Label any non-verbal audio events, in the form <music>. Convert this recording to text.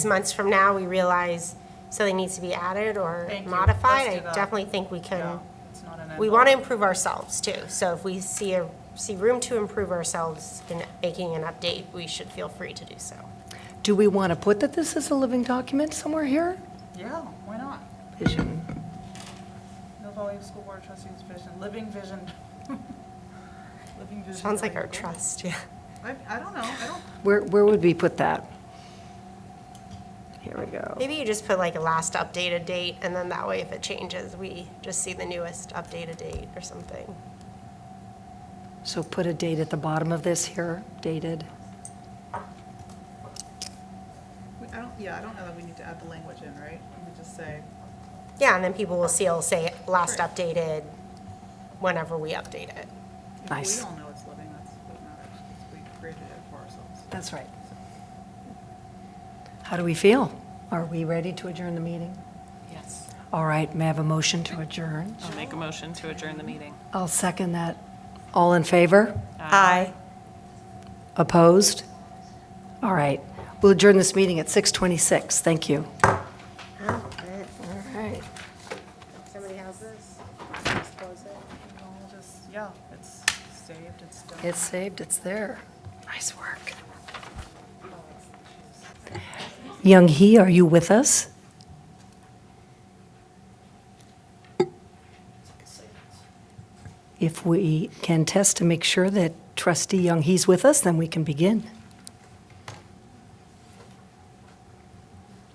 months from now, we realize something needs to be added or Thank you. modified, Let's I do that. definitely think we Yeah, can, it's not an we want to envelope. improve ourselves too. So if we see a, see room to improve ourselves in making an update, we should feel free to do so. Do we want to put that this is a living document somewhere here? Yeah, why not? Vision. Mill Valley School Board Trustees Vision, Living Vision. <laughs> Living Vision. Sounds like our Living Vision. trust, yeah. I, I don't know, I don't, Where, where would we put that? Here we go. Maybe you just put like a last updated date, and then that way if it changes, we just see the newest updated date or something. So put a date at the bottom of this here, dated. we- I don't, yeah, I don't know that we need to add the language in, right? We could just say, Yeah, and then people will see, it'll say last Sure. updated whenever we update it. if Nice. we all know it's living, that's what matters, because we created it for ourselves. That's right. How do we feel? Are we ready to adjourn the meeting? Yes. All right, may I have a motion to adjourn? I'll make a motion to adjourn the meeting. I'll second that. All in favor? Aye. Opposed? All right. We'll adjourn this meeting at 6:26. Thank you. All right. Somebody has this? close it. We all just, yeah, it's saved, it's done. It's saved, it's there. Nice work. Young He, are you with us? If we can test to make sure that trustee Young He's with us, then we can begin.